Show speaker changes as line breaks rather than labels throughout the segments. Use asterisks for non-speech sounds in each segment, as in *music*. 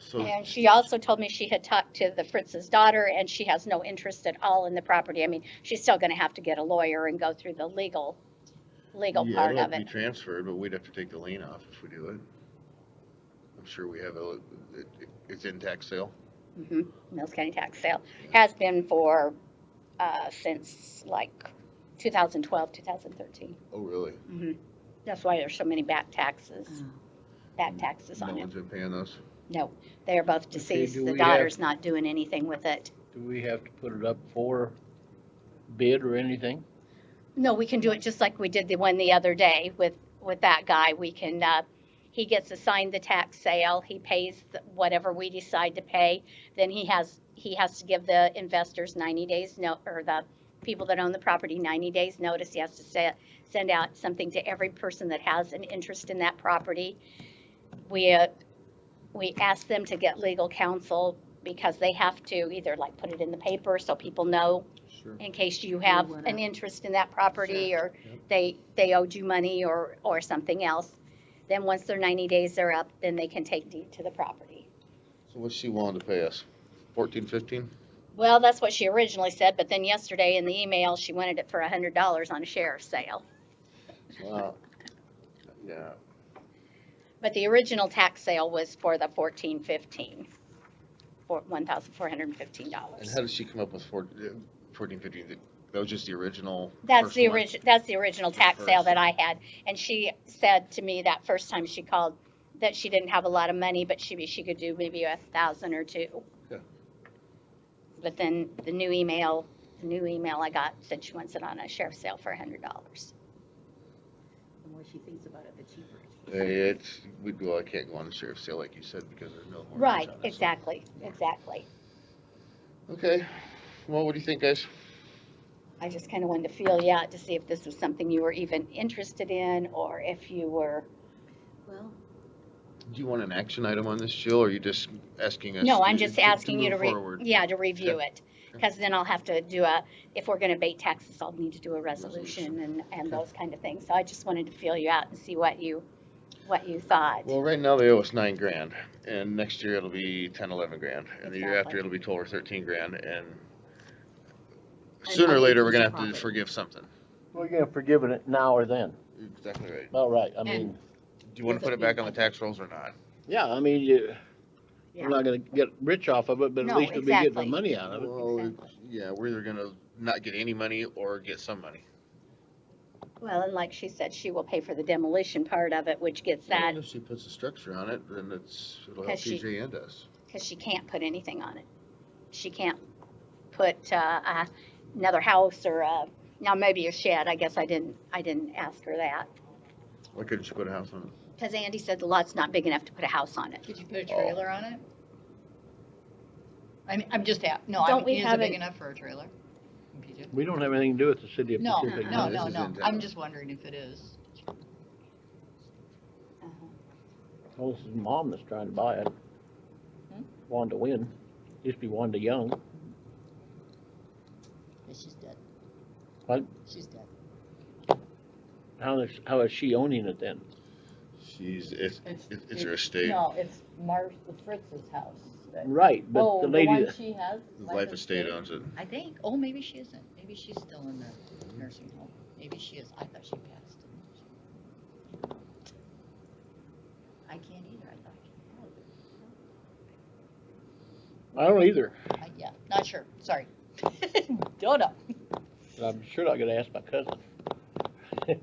So,
And she also told me she had talked to the Fritz's daughter and she has no interest at all in the property. I mean, she's still gonna have to get a lawyer and go through the legal, legal
yeah,
part
it'll have
of
to be
it.
transferred, but we'd have to take the lien off if we do it. I'm sure we have a, it, it's in tax sale.
Mhm. Mills County tax sale has been for, uh, since like 2012, 2013.
Oh, really?
Mhm. That's why there's so many back taxes,
um,
back taxes
Mm-hmm. No
on it.
one's been paying us?
No, they are both deceased.
do
The
we have-
daughter's not doing anything with it.
Do we have to put it up for bid or anything?
No, we can do it just like we did the one the other day with, with that guy. We can, uh, he gets assigned the tax sale, he pays th- whatever we decide to pay. Then he has, he has to give the investors ninety days no, or the people that own the property ninety days notice. He has to se- send out something to every person that has an interest in that property. We, uh, we ask them to get legal counsel because they have to either like put it in the paper so people know
Sure.
in case you have
went
an
up.
interest in that property or
Yep.
they, they owed you money or, or something else. Then once their ninety days are up, then they can take deed to the property.
So what's she willing to pay us? Fourteen, fifteen?
Well, that's what she originally said, but then yesterday in the email, she wanted it for a hundred dollars on a sheriff's sale. *laughs*
Wow. Yeah,
But the original tax sale was for the fourteen fifteen, for one thousand four hundred and fifteen
and
dollars.
how did she come up with four- uh, fourteen, fifteen? That- That was just the original?
That's
first
the
one?
origi, that's the original
The
tax sale
first.
that I had, and she said to me that first time she called that she didn't have a lot of money, but she, she could do maybe a thousand or two.
Yeah.
But then the new email, the new email I got said she wants it on a sheriff's sale for a hundred dollars.
The more she thinks about it, the cheaper it
Uh,
is.
It's, we, well, I can't go on the sheriff's sale like you said because there's no. mortgage
Right,
on it, so-
exactly, exactly.
Okay, well, what do you think, guys?
I just kind of wanted to feel you out to see if this was something you were even interested in, or if you were,
Well,
Do you want an action item on this, Jill, or are you just asking us?
no,
to-
I'm just
to- to
asking you to
move
re,
forward?
yeah, to review
Okay.
it. Because then I'll have to do a, if we're gonna abate taxes, I'll need to do a resolution and, and
Okay.
those kind of things. So I just wanted to feel you out and see what you, what you thought.
Well, right now they owe us nine grand, and next year it'll be ten, eleven grand, and the year after
Exactly.
it'll be twelve or thirteen grand, and
I
sooner or
think
later, we're
it's
gonna
a
have to
profit.
forgive something.
We're gonna forgive it now or then.
Exactly right.
All right, I
And-
mean,
Do you wanna
Does
put
it
it back
mean-
on the tax rolls or not?
yeah, I mean, you, we're not gonna get rich off of it, but at
No,
least we'll be getting the
exactly.
money out of it.
Well, Exactly.
yeah, we're either gonna not get any money or get some money.
Well, and like she said, she will pay for the demolition part of it, which gets that,
If she puts a structure on it, then it's, it'll help
Cause she-
TJ and us.
because she can't put anything on it. She can't put, uh, a- another house or, uh, now maybe a shed. I guess I didn't, I didn't ask her that.
Why couldn't she put a house on it?
Because Andy said the lot's not big enough to put a house on it.
Could you put a
Oh.
trailer on it? I mean, I'm just, a- no, I
Don't
mean,
we
is
have
it big
an-
enough for a trailer? PJ?
We don't have anything to do with the city of
No,
no,
Pacific.
no,
this
no,
is
no,
in town.
I'm just wondering if it is.
Uh-huh.
Well, this is mom that's trying to buy it.
Hmm?
Wanda Win, used to be Wanda Young.
But she's dead.
What?
She's dead.
How is, how is she owning it then?
Oh, She's, it's,
It's-
it's it's her estate,
No, it's Mar, the Fritz's house. that-
Right, but
Oh,
the
the
lady,
one
that-
she has?
life estate owns it.
I think, oh, maybe she isn't, maybe she's still in the
Mm-hmm.
nursing home, maybe she is, I thought she passed. didn't she? I can't either, I thought I
I don't either,
could, I, yeah, not sure, sorry. *laughs* Don't know.
but I'm sure not gonna ask my cousin. *laughs*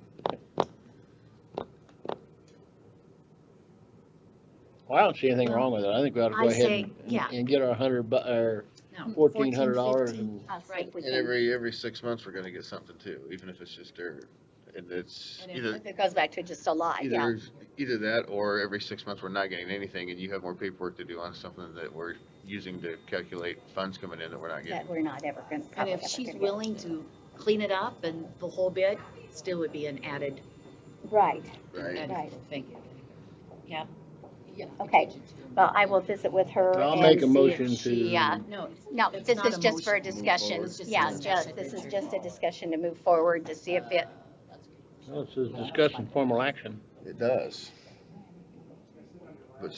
Well, I don't see anything wrong with it, I think we ought to
I
go ahead
say,
and,
yeah. Um,
and get our hundred bu- or
No.
fourteen hundred dollars and
Us, if we
And
can-
every, every six months, we're gonna get something too, even if it's just dirt. And it's
And if-
either,
If It goes back to just a lot, yeah.
either, either that or every six months, we're not getting anything and you have more paperwork to do on something that we're using to calculate funds coming in that we're not
That
getting.
we're not ever gonna,
And
probably
if
ever
she's
gonna get.
willing to clean it up and the whole bit, still would be an added.
Right,
Right?
And
Right.
Thank you.
Yeah.
Yeah.
Okay. well, I will visit with her
I'll
and
make a
see if
motion
she,
to-
uh,
No,
No,
It's
this
not
is
a
just for a
motion.
Move
discussion,
forward.
It's just a
yeah,
discussion.
just, this is just a discussion to move forward to see if it,
Well, This is discussing formal action.
It does. But